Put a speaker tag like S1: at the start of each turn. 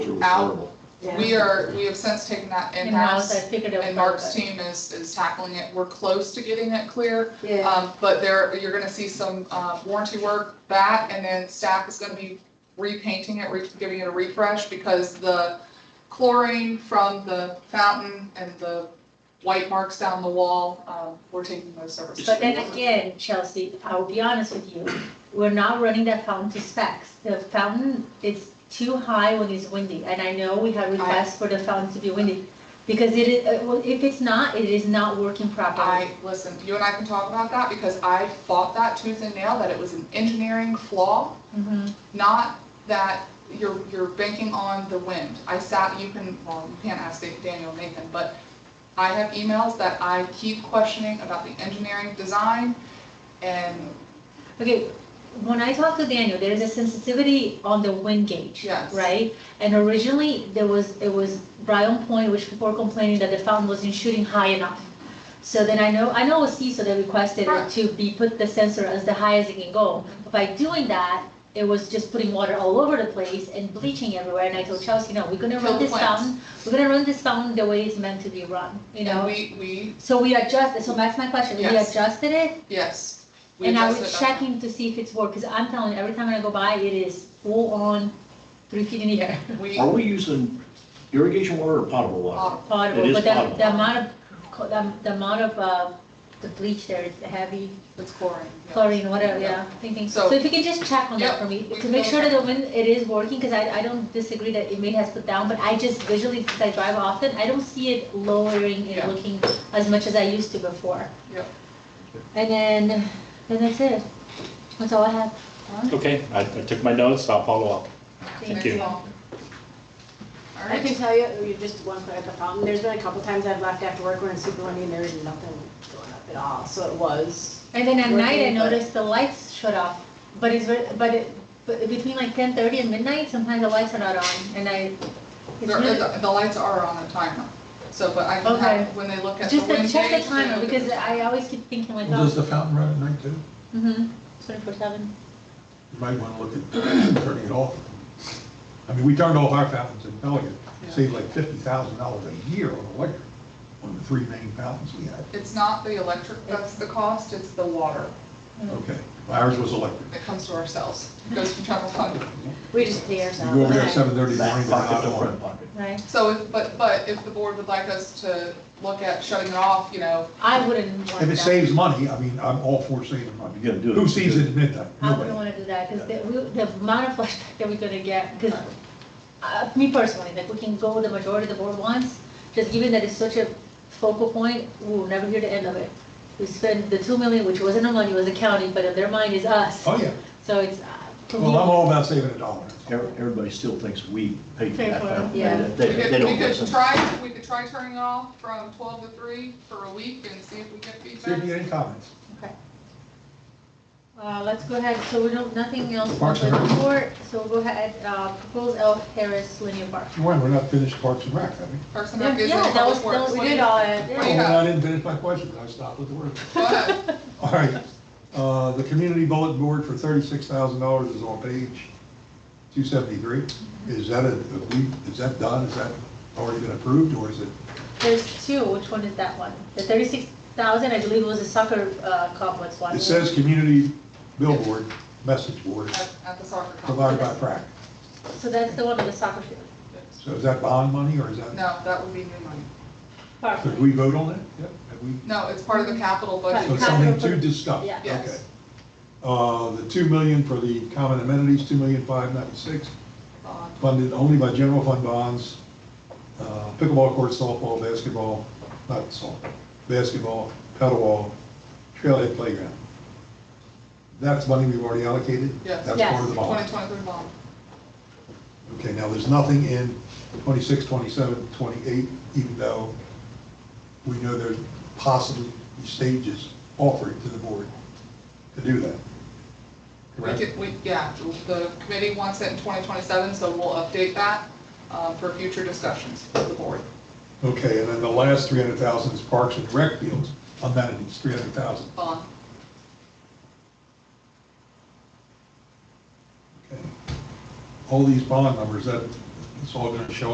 S1: out.
S2: affordable.
S1: We are, we have since taken that
S3: In-house,
S1: in-house,
S3: I figured out.
S1: and Mark's team is, is tackling it. We're close to getting it clear.
S3: Yeah,
S1: Um, but there, you're gonna see some, uh, warranty work, that, and then staff is gonna be repainting it, re- giving it a refresh, because the chlorine from the fountain and the white marks down the wall, um, we're taking those services.
S3: but then again, Chelsea, I'll be honest with you, we're not running that fountain to specs. The fountain is too high when it's windy, and I know we have requests for the fountain to be windy. Because it is, uh, well, if it's not, it is not working properly.
S1: I, listen, you and I can talk about that, because I fought that tooth and nail, that it was an engineering flaw,
S3: Mhm.
S1: not that you're, you're banking on the wind. I sat, you can, well, you can't ask Daniel Nathan, but I have emails that I keep questioning about the engineering design, and
S3: Okay, when I talked to Daniel, there is a sensitivity on the wind gauge.
S1: Yes.
S3: Right? And originally, there was, it was Bryan Point, which people were complaining that the fountain wasn't shooting high enough. So then I know, I know CISO that requested it
S1: Right.
S3: to be, put the sensor as the high as it can go. But By doing that, it was just putting water all over the place and bleaching everywhere. And I told Chelsea, no, we're gonna
S1: Kill the
S3: run this
S1: plants.
S3: fountain, we're gonna run this fountain the way it's meant to be run, you
S1: and
S3: know?
S1: we, we,
S3: So we adjusted, so that's my question, we
S1: Yes.
S3: adjusted it
S1: yes. we
S3: and I
S1: adjusted
S3: was
S1: that.
S3: checking to see if it's work, because I'm telling you, every time I go by, it is full on three feet in the air.
S1: We,
S2: Are we using irrigation water or potable water?
S1: uh,
S2: It
S3: Horrible,
S2: is
S3: but the,
S2: horrible.
S3: the amount of, co- the, the amount of, uh, the bleach there is heavy,
S1: it's chlorine. yeah.
S3: chlorine, whatever, yeah, thinking.
S1: So-
S3: So if you can just check on that
S1: Yep,
S3: for me,
S1: we
S3: to make
S1: will.
S3: sure that the wind, it is working, because I, I don't disagree that it may has put down, but I just visually, because I drive often, I don't see it lowering
S1: Yeah.
S3: and looking as much as I used to before.
S1: Yep.
S3: And then, then that's it. That's all I have.
S4: Okay, I, I took my notes, I'll follow up.
S1: Thanks,
S4: you.
S1: all. All
S5: I
S1: right.
S5: can tell you, you just one thing at the fountain, there's been a couple times I've left after work when it's super windy and there's nothing going up at all, so it was.
S3: And then at night, I
S5: Working, but-
S3: noticed the lights shut off, but it's, ver- but it, but between like ten thirty and midnight, sometimes the lights are not on, and I, it's
S1: There-
S3: really,
S1: The the lights are on a timer, so, but I can
S3: Okay.
S1: have, when they look at the
S3: just to
S1: wind
S3: check
S1: gauge,
S3: the
S1: they
S3: timer,
S1: look at
S3: because
S1: the-
S3: I always keep thinking like,
S6: Well, Does
S3: oh,
S6: the fountain run at night too?
S3: mm-hmm, twenty-four seven.
S6: You might want to look at turning it off. I mean, we turned off our fountains in Pelican, saved like fifty thousand dollars a year on electric, on the three main fountains we had.
S1: It's not the electric that's the cost, it's the water
S6: Okay, ours was electric.
S1: that comes to ourselves, It goes from general fund.
S5: We just pay
S6: You
S5: ourselves.
S6: go over there at
S3: Okay.
S6: seven thirty in the
S2: Back
S6: morning, they're
S2: pocket
S6: not
S2: to front
S6: on.
S2: pocket.
S3: Right,
S1: So, if but, but if the board would like us to look at shutting it off, you know,
S3: I wouldn't want that.
S6: If it saves money, I mean, I'm all for saving money.
S2: You're gonna do it.
S6: Who sees it at midnight?
S3: I wouldn't
S6: Nobody.
S3: wanna do that, because the, we- the amount of flashback that we're gonna get, because, uh, me personally, like, we can go the majority of the board wants, just given that it's such a focal point, we will never hear the end of it. We spend the two million, which wasn't our money, it was the county, but in their mind is us,
S6: Oh, yeah.
S3: so it's, uh, to
S6: Well, I'm
S3: me,
S6: all about saving a dollar.
S2: Ev- Everybody still thinks we paid for
S3: Pay
S2: that.
S3: for it,
S2: fountain.
S5: yeah.
S2: They,
S1: we
S2: they-
S1: could,
S2: they
S1: we
S2: don't
S1: could
S2: listen.
S1: try, we could try turning it off from twelve to three for a week and see if we get
S6: See if you
S1: feedback.
S6: get any comments.
S3: uh, let's go ahead, so we don't, nothing else on
S6: Parks
S3: the
S6: and Rec.
S3: report, so we'll go ahead, uh, propose El Harris linear park.
S6: You want, we're not finished Parks and Rec, have we?
S1: Parks and
S3: Yeah,
S1: Rec is in
S3: yeah, that was,
S1: public
S3: that
S1: works.
S3: was,
S1: What
S3: we
S1: do
S3: did
S1: you-
S3: all
S1: what
S3: that,
S1: do
S3: yeah.
S1: you
S6: Oh,
S1: have?
S6: I didn't finish my question, I stopped with the word.
S1: Go ahead.
S6: All right, uh, the community bulletin board for thirty-six thousand dollars is on page two seventy-three. Is that a, we- is that done, is that already been approved, or is it,
S3: There's two, which one is that one? The thirty-six thousand, I believe, was the soccer uh, complex one.
S6: it says community billboard, message board,
S1: At at the soccer complex.
S6: provided by PrAC.
S3: So that's the one with the soccer field.
S6: So is that bond money, or is that,
S1: No, that would be new money.
S3: Park.
S6: did we vote on that? Yep. Have we?
S1: No, it's part of the capital budget.
S6: So it's something to discuss?
S3: Yeah.
S1: Yes.
S6: Okay. Uh, the two million for the common amenities, two million five ninety-six,
S1: Uh,
S6: funded only by general fund bonds, uh, pickleball court, softball, basketball, not softball, basketball, paddleball, trailhead playground. That's money we've already allocated?
S1: Yes.
S6: That's part of the bond.
S1: 2023 bond.
S6: Okay, now, there's nothing in 26, 27, 28, even though we know there's possibly stages offered to the board to do that.
S1: We
S6: Correct?
S1: could, we, yeah, the committee wants it in 2027, so we'll update that uh, for future discussions with the board.
S6: Okay, and then the last 300,000 is parks and rec fields, amenities, 300,000.
S1: Bond.
S6: Okay. All these bond numbers, that, it's all gonna show